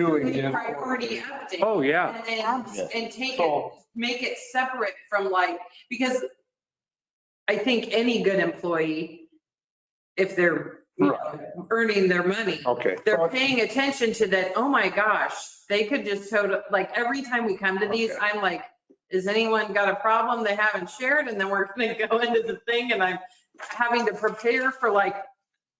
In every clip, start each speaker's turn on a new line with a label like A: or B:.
A: doing
B: We
A: is.
B: priority update.
C: Oh, yeah.
B: And then, and take it,
A: So,
B: make it separate from like, because I think any good employee, if they're, you know, earning their money,
A: okay.
B: they're paying attention to that, oh my gosh, they could just total, like, every time we come to these,
A: Okay.
B: I'm like, has anyone got a problem they haven't shared? And then we're gonna go into the thing and I'm having to prepare for like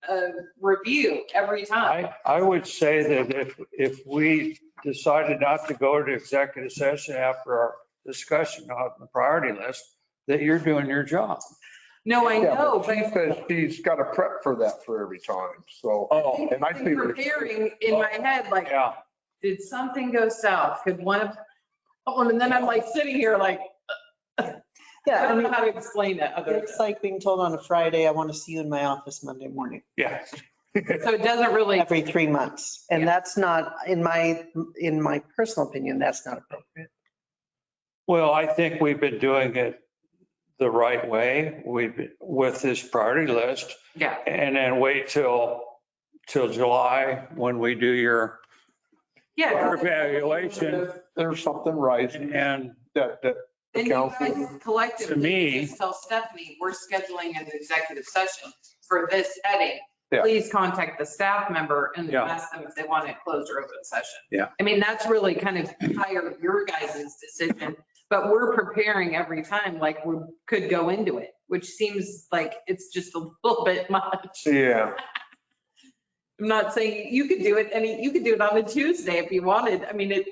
B: a review every time.
C: I, I would say that if, if we decided not to go to executive session after our discussion on the priority list, that you're doing your job.
B: No, I
A: Yeah,
B: know,
A: She
B: but
A: says she's got to prep for that for every time, so.
C: Oh,
A: And I
B: I've
A: see
B: been
A: what you're-
B: preparing in my head, like,
C: yeah.
B: did something go south? Could one of, oh, and then I'm like sitting here like, I
D: Yeah, I
B: don't know
D: mean,
B: how to explain it other
D: it's
B: than.
D: like being told on a Friday, I want to see you in my office Monday morning,
C: Yeah.
B: So it doesn't really,
D: every three months. And that's not, in my, in my personal opinion, that's not appropriate.
C: Well, I think we've been doing it the right way. We've, been- with this priority list.
B: yeah,
C: And then wait till, till July when we do your
B: yeah.
C: evaluation.
A: There's something right
C: And
A: that, that the
B: And you
A: council.
B: guys collectively.
C: To me-
B: just Tell Stephanie, we're scheduling an executive session for this heading.
A: Yeah.
B: Please contact the staff member and
C: Yeah.
B: ask them if they want it closed or open session.
C: Yeah.
B: I mean, that's really kind of higher your guys' decision, but we're preparing every time, like we could go into it, which seems like it's just a little bit much.
A: Yeah,
B: I'm not saying you could do it any, you could do it on a Tuesday if you wanted. I mean, it,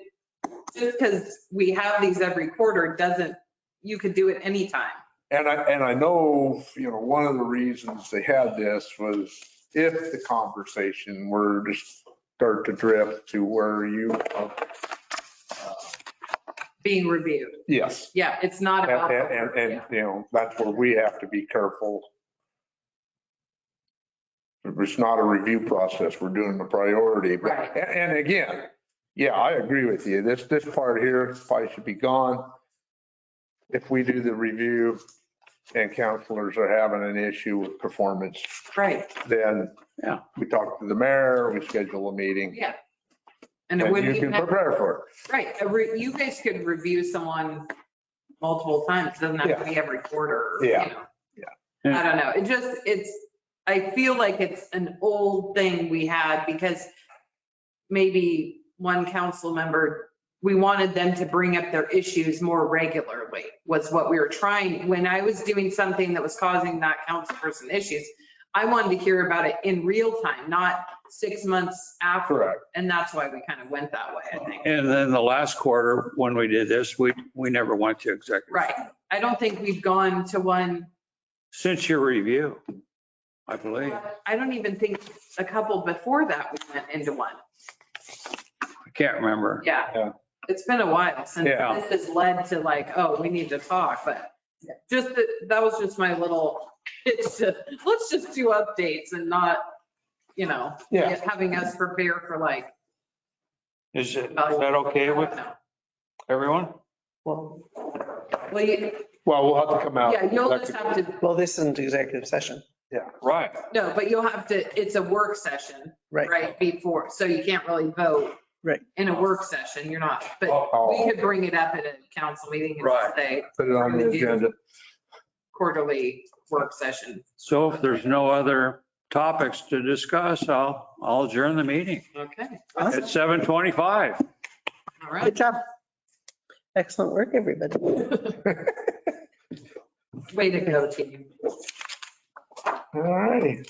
B: just because we have these every quarter doesn't, you could do it anytime.
A: and I, and I know, you know, one of the reasons they had this was if the conversation were to start to drift to where you,
B: being reviewed.
A: yes.
B: Yeah, it's not
A: And,
B: about.
A: and, and- and, you know, that's where we have to be careful. It's not a review process. We're doing the priority, but,
B: Right.
A: and, and again, yeah, I agree with you. This, this part here probably should be gone. If we do the review and counselors are having an issue with performance,
B: Right,
A: then
C: Yeah.
A: we talk to the mayor, we schedule a meeting,
B: yeah. And it
A: and
B: would
A: you
B: be,
A: can prepare for
B: right, a re- you guys could review someone multiple times, doesn't have to be every quarter. you
A: Yeah.
B: know.
C: Yeah.
B: I don't know, it just, it's, I feel like it's an old thing we had because maybe one council member, we wanted them to bring up their issues more regularly was what we were trying. When I was doing something that was causing that council person issues, I wanted to hear about it in real time, not six months
A: it.
B: after.
A: Correct.
B: And that's why we kind of went that way, I think.
C: And then the last quarter, when we did this, we, we never went to executive.
B: Right. I don't think we've gone to one,
C: Since your review, I believe.
B: I don't even think a couple before that we went into one.
C: I can't remember.
A: Yeah.
B: Yeah. It's been a while since
C: Yeah.
B: this has led to like, oh, we need to talk, but just that, that was just my little, it's just, let's just do updates and not, you know,
A: Yeah.
B: having us prepare for like.
C: Is it, is that okay with everyone?
D: Well,
B: Well, you-
A: Well, we'll have to come
C: Oh,
A: out.
B: yeah, you'll just have to,
D: well, this isn't executive session,
C: Right.
B: no, but you'll have to, it's a work session.
D: right?
B: right, before, so you can't really vote.
D: Right.
B: In a work session, you're not, but we
A: I'll
B: could bring it up at a council meeting
C: Right.
B: and say
A: Put it on the agenda.
B: quarterly work session.
C: So if there's no other topics to discuss, I'll, I'll adjourn the meeting
B: Okay,
C: at 7:25.
B: all right.
D: Good job. Excellent work, everybody.
B: Way to go, team.
A: All righty.